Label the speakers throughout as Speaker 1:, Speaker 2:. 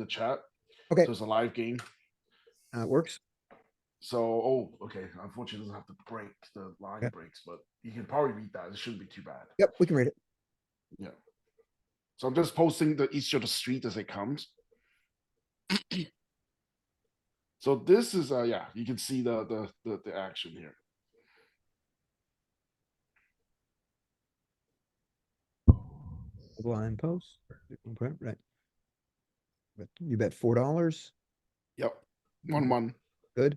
Speaker 1: the chat.
Speaker 2: Okay.
Speaker 1: So it's a live game.
Speaker 2: Uh, it works.
Speaker 1: So, oh, okay. Unfortunately, it doesn't have to break the line
Speaker 2: Yeah.
Speaker 1: breaks, but you can probably read that. It shouldn't be too bad.
Speaker 2: Yep, we can read it.
Speaker 1: So I'm just posting the each of the street as it comes. so this is uh yeah, you can see the the the, the action here.
Speaker 2: Blind post. Okay, Right. But you bet four dollars.
Speaker 1: Yep. One one.
Speaker 2: I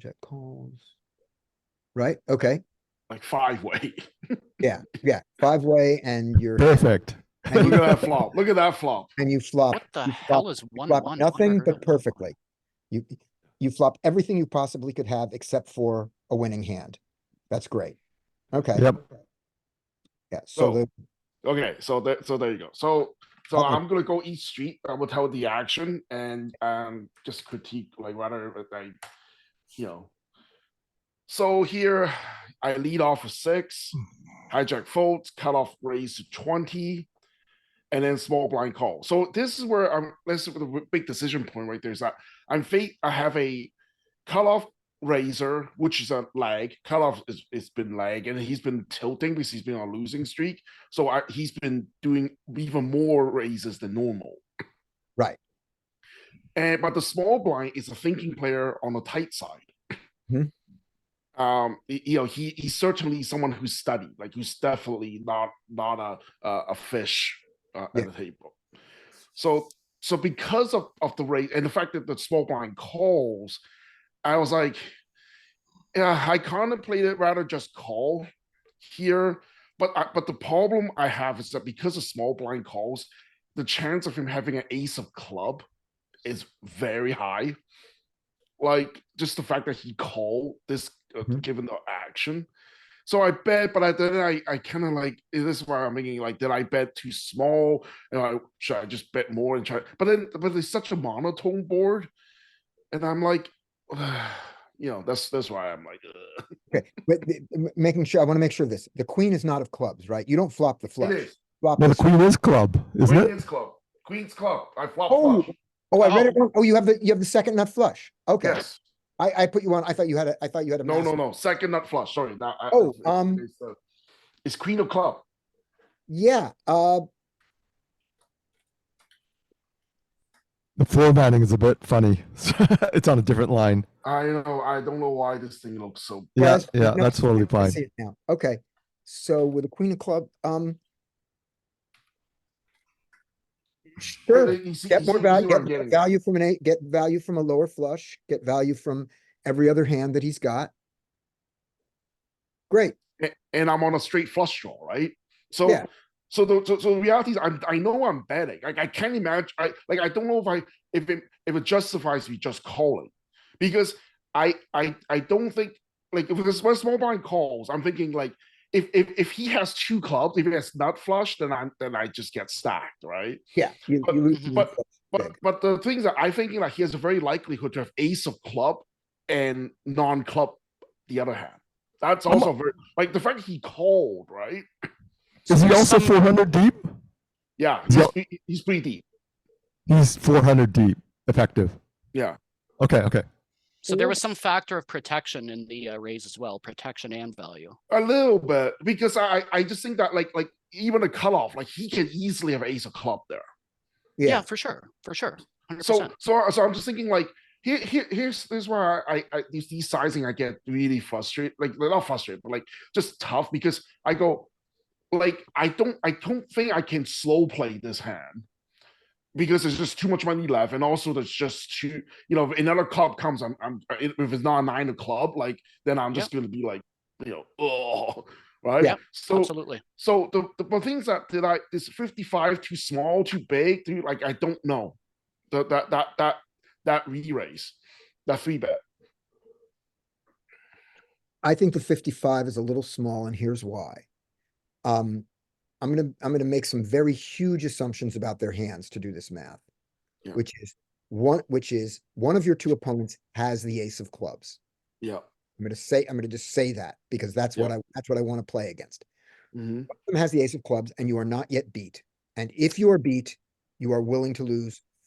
Speaker 2: check calls. Right, okay,
Speaker 1: Like five way.
Speaker 2: yeah, yeah, five way and you're,
Speaker 3: Perfect.
Speaker 2: and
Speaker 1: Look
Speaker 2: you,
Speaker 1: at that flop. Look at that flop.
Speaker 2: and you flop.
Speaker 4: What the
Speaker 2: you
Speaker 4: hell
Speaker 2: flop-
Speaker 4: is
Speaker 2: you
Speaker 4: one
Speaker 2: flop
Speaker 4: one?
Speaker 2: Nothing but perfectly. You, you flop everything you possibly could have except for a winning hand. That's great. Okay.
Speaker 3: Yep.
Speaker 2: Yeah, so
Speaker 1: So-
Speaker 2: the,
Speaker 1: Okay, so that so there you go. So so
Speaker 2: Uh-oh.
Speaker 1: I'm gonna go each street. I will tell the action and um just critique like whether I you know. So here I lead off with six, hijack folds, cut off raise to twenty, and then small blind call. So this is where I'm. This is the big decision point right there. Is that I'm fate. I have a cutoff razor, which is a lag. Cutoff is it's been lag, and he's been tilting because he's been on a losing streak. So I, he's been doing even more raises than normal.
Speaker 2: Right.
Speaker 1: And but the small blind is a thinking player on the tight side.
Speaker 2: Mhm.
Speaker 1: Um, y- you know, he he's certainly someone who's studied, like who's definitely not not a a, a fish uh,
Speaker 2: Yeah.
Speaker 1: at the table. So so because of of the rate and the fact that the small blind calls, I was like, yeah, I contemplated rather just call here, but I, but the problem I have is that because of small blind calls, the chance of him having an ace of club is very high. Like just the fact that he called this uh,
Speaker 3: Mhm.
Speaker 1: given the action. So I bet, but I then I, I kind of like this is why I'm thinking like did I bet too small? And I should I just bet more and try? But then but it's such a monotone board, and I'm like, you know that's that's why I'm like, ugh.
Speaker 2: okay, but the- m- making sure, I wanna make sure of this, the queen is not of clubs, right? You don't flop the
Speaker 1: it
Speaker 2: flush.
Speaker 1: is
Speaker 2: Flop
Speaker 3: No,
Speaker 2: the
Speaker 3: the queen is club, isn't it?
Speaker 1: Queen's club, Queen's club. I flop
Speaker 2: Oh,
Speaker 1: flush.
Speaker 2: Oh, I read it wrong. Oh, you have the, you have the second nut flush. Okay.
Speaker 1: Yes.
Speaker 2: I, I put you on, I thought you had a, I thought you had a.
Speaker 1: No, no,
Speaker 2: massive-
Speaker 1: no. Second nut flush. Sorry. That, I-
Speaker 2: Oh,
Speaker 1: it's- it's-
Speaker 2: um,
Speaker 1: it's, uh, it's queen of club.
Speaker 2: Yeah, uh,
Speaker 3: The formatting is a bit funny. it's on a different line.
Speaker 1: I know. I don't know why this thing looks so.
Speaker 3: Yeah,
Speaker 2: Yes,
Speaker 3: yeah,
Speaker 2: no,
Speaker 3: that's totally
Speaker 2: I
Speaker 3: fine.
Speaker 2: see it now. Okay, so with the queen of club, um. Sure,
Speaker 1: You see-
Speaker 2: get
Speaker 1: you
Speaker 2: more
Speaker 1: see- you see
Speaker 2: value,
Speaker 1: what I'm
Speaker 2: get more
Speaker 1: getting at.
Speaker 2: value from an eight, get value from a lower flush, get value from every other hand that he's got. Great,
Speaker 1: a- and I'm on a straight flush draw, right? So,
Speaker 2: Yeah.
Speaker 1: so the so, so the reality is, I'm, I know I'm betting. Like I can't imagine. I like I don't know if I if it if it justifies me just calling, because I I I don't think like if this when small blind calls, I'm thinking like if if if he has two clubs, if he has nut flush, then I then I just get stacked, right?
Speaker 2: yeah. you-
Speaker 1: But-
Speaker 2: you lose the
Speaker 1: but-
Speaker 2: flush.
Speaker 1: But
Speaker 2: Big.
Speaker 1: but the things that I'm thinking like he has a very likelihood to have ace of club and non club the other hand. That's also very like the fact he called, right?
Speaker 3: Is he
Speaker 4: There's
Speaker 3: also
Speaker 4: some-
Speaker 3: 400 deep?
Speaker 1: Yeah,
Speaker 3: Yeah.
Speaker 1: he's, pre- he's pretty deep.
Speaker 3: He's 400 deep, effective.
Speaker 1: Yeah.
Speaker 3: Okay, okay.
Speaker 4: So there
Speaker 2: Or-
Speaker 4: was some factor of protection in the uh, raise as well, protection and value.
Speaker 1: A little bit because I I just think that like like even a cutoff like he can easily have ace of club there.
Speaker 4: Yeah,
Speaker 2: Yeah,
Speaker 4: for sure, for sure, hundred
Speaker 1: So
Speaker 4: percent.
Speaker 1: so so I'm just thinking like here, here here's this is why I I these these sizing I get really frustrated like not frustrated but like just tough because I go like I don't I don't think I can slow play this hand because there's just too much money left and also there's just too you know if another club comes I'm I'm uh, if it's not a nine of club like then I'm just gonna be like you know oh right
Speaker 4: Yep,
Speaker 1: so
Speaker 4: Absolutely.
Speaker 1: so the, the but things that did I is 55 too small, too big, too like I don't know. That that that that that re-raise, that three bet.
Speaker 2: I think the fifty-five is a little small and here's why. Um, I'm gonna, I'm gonna make some very huge assumptions about their hands to do this math.
Speaker 1: Yeah.
Speaker 2: Which is one, which is one of your two opponents has the ace of clubs.
Speaker 1: Yeah.
Speaker 2: I'm gonna say, I'm gonna just say that because that's what I, that's what I wanna play against.
Speaker 1: Mhm.
Speaker 2: One of them Has the ace of clubs and you are not yet beat. And if you are beat, you are willing to lose